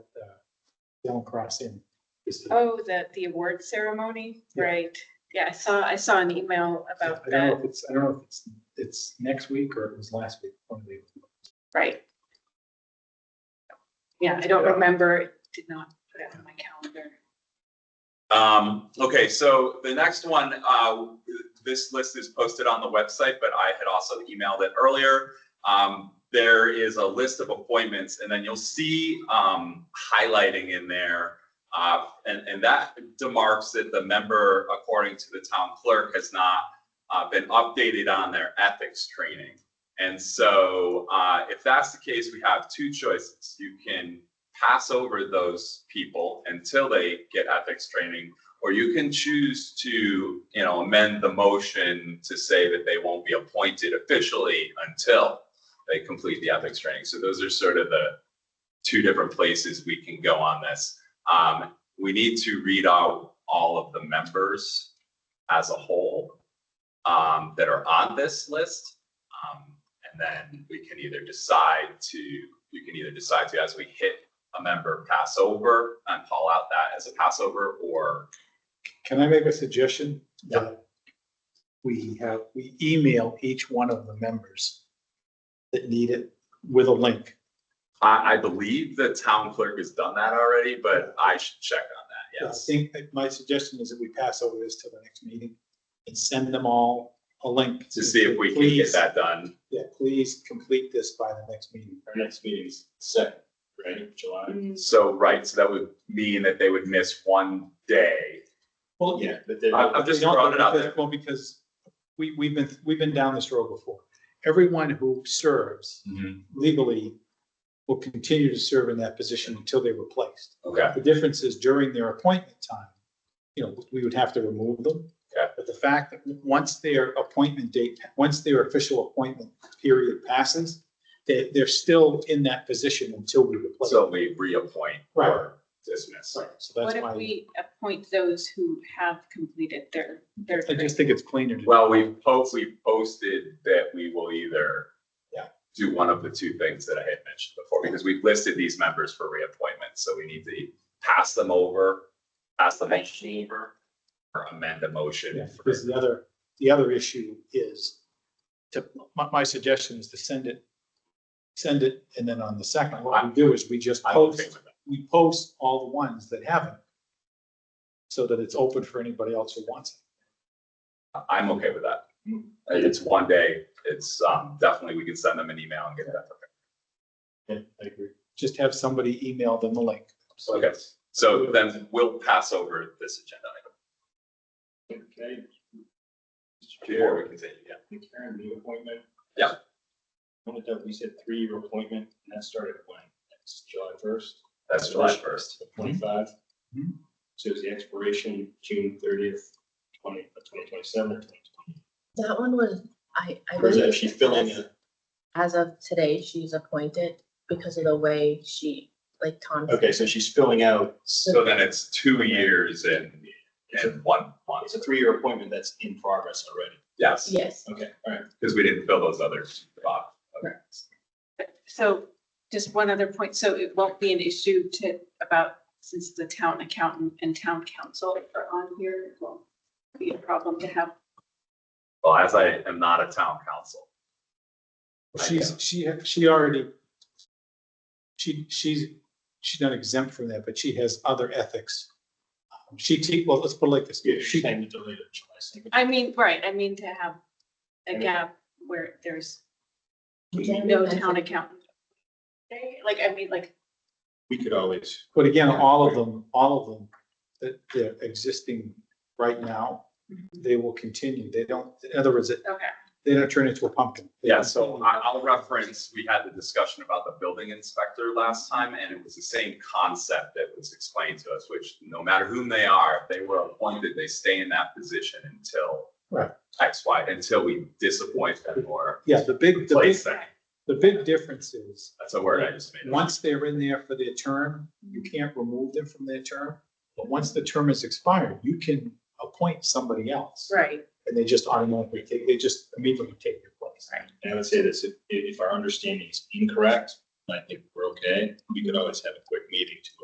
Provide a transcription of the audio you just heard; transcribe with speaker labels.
Speaker 1: Yellow uh, Cross Inn. Is the-
Speaker 2: Oh, the, the award ceremony,
Speaker 1: Yeah.
Speaker 2: right. Yeah, I saw, I saw an email about
Speaker 1: I don't know
Speaker 2: that,
Speaker 1: if it's, I don't know if it's, it's next week or it was last week. one of the-
Speaker 2: right. Yeah, I don't
Speaker 3: Yeah.
Speaker 2: remember, It did not put it on my calendar.
Speaker 3: Um, okay, so the next one, uh, this list is posted on the website, but I had also emailed it earlier. Um, there is a list of appointments and then you'll see, um, highlighting in there. Uh, and, and that demarks that the member, according to the town clerk, has not, uh, been updated on their ethics training. And so, uh, if that's the case, we have two choices. You can, pass over those people until they get ethics training. Or you can choose to, you know, amend the motion to say that they won't be appointed officially until they complete the ethics training. So those are sort of the two different places we can go on this. Um, we need to read out all of the members as a whole um, that are on this list. Um, and then we can either decide to, you can either decide to, as we hit a member pass over and call out that as a passover or,
Speaker 1: Can I make a suggestion? Yeah. We have, we email each one of the members that need it with a link.
Speaker 3: I, I believe the town clerk has done that already, but I should check on that,
Speaker 1: I
Speaker 3: yes.
Speaker 1: think that my suggestion is that we pass over this to the next meeting and send them all a link.
Speaker 3: To see if we can get
Speaker 1: Please-
Speaker 3: that done.
Speaker 1: Yeah, please complete this by the next meeting.
Speaker 4: Our next meeting's second, right, July?
Speaker 1: Mm,
Speaker 3: So, right, so that would mean that they would miss one day.
Speaker 1: Well,
Speaker 4: Yeah, but then,
Speaker 3: I- I'm just
Speaker 1: You know,
Speaker 3: throwing it out
Speaker 1: because-
Speaker 3: there.
Speaker 1: Well, because we, we've been, we've been down this road before. Everyone who serves legally will continue to serve in that position until they're replaced.
Speaker 3: Okay,
Speaker 1: The difference is during their appointment time, you know, we would have to remove them.
Speaker 3: Okay.
Speaker 1: But the fact that once their appointment date, once their official appointment period passes, they, they're still in that position until we replace them.
Speaker 3: so we reappoint
Speaker 1: Right.
Speaker 3: or dismiss.
Speaker 1: Right, So
Speaker 2: What
Speaker 1: that's
Speaker 2: if
Speaker 1: why,
Speaker 2: we appoint those who have completed their, their,
Speaker 1: I just think it's cleaner to.
Speaker 3: Well, we hope we posted that we will either
Speaker 1: Yeah.
Speaker 3: do one of the two things that I had mentioned before, because we've listed these members for reappointment, so we need to pass them over, pass the motion over, or amend the
Speaker 1: Yeah,
Speaker 3: motion. for-
Speaker 1: because the other, the other issue is to, my, my suggestion is to send it, send it, and then on the second, what we do is we just
Speaker 3: I'm okay
Speaker 1: post,
Speaker 3: with that.
Speaker 1: we post all the ones that haven't. So that it's open for anybody else who wants
Speaker 3: I'm okay with that. It's one day, it's, um, definitely, we can send them an email and get that.
Speaker 4: yeah, I agree.
Speaker 1: it. Just have somebody email them the link. So
Speaker 3: Okay, so then we'll pass over this agenda item
Speaker 4: Okay. Mr.
Speaker 3: before
Speaker 4: Chair,
Speaker 3: we continue, yeah.
Speaker 4: Karen, the appointment.
Speaker 3: Yeah.
Speaker 4: One of we said three-year appointment, and that started when? That's July first,
Speaker 3: That's July first.
Speaker 4: twenty-five. Mm-hmm.
Speaker 1: Mhm.
Speaker 4: So it's the expiration, June thirtieth, twenty, uh, twenty twenty-seven or twenty twenty.
Speaker 5: That one was, I, I
Speaker 4: Or is that
Speaker 5: believe.
Speaker 4: she filling
Speaker 5: as-
Speaker 4: in?
Speaker 5: As of today, she's appointed because of the way she, like Tom. said,
Speaker 4: Okay, so she's filling out,
Speaker 3: So then it's two years and, and one month,
Speaker 4: it's a three-year appointment that's in progress already.
Speaker 3: yes.
Speaker 5: Yes,
Speaker 4: Okay, all right.
Speaker 3: Because we didn't fill those others. Bob.
Speaker 2: so just one other point. So it won't be an issue to, about, since the town accountant and town council are on here, it won't be a problem to have.
Speaker 3: Well, as I am not a town council.
Speaker 1: She's, she, she already, she, she's, she's not exempt from that, but she has other ethics. She, te- well, let's put it like this.
Speaker 4: Yeah,
Speaker 1: She-
Speaker 4: she's saying to delete it July second.
Speaker 2: I mean, right, I mean to have a
Speaker 4: Yeah.
Speaker 2: gap where there's
Speaker 5: You can
Speaker 2: no
Speaker 5: be
Speaker 2: town
Speaker 5: mentioned.
Speaker 2: accountant. Okay, Like, I mean, like,
Speaker 4: We could always,
Speaker 1: But again, all of them, all of them, that they're existing right now, they will continue. They don't, in other words, it-
Speaker 2: okay,
Speaker 1: they don't turn into a pumpkin.
Speaker 3: Yeah, so I- I'll reference, we had the discussion about the building inspector last time, and it was the same concept that was explained to us, which no matter whom they are, if they were appointed, they stay in that position until
Speaker 1: Right.
Speaker 3: X, Y, until we disappoint them or
Speaker 1: Yeah, the big, the big,
Speaker 3: replace them.
Speaker 1: the big difference is,
Speaker 3: That's a word I just made. up.
Speaker 1: once they're in there for their term, you can't remove them from their term. But once the term is expired, you can appoint somebody else.
Speaker 2: right,
Speaker 1: And they just automatically take, they just immediately take your place.
Speaker 2: Right.
Speaker 4: and I would say this, if, if our understanding is incorrect, I think we're okay. We could always have a quick meeting to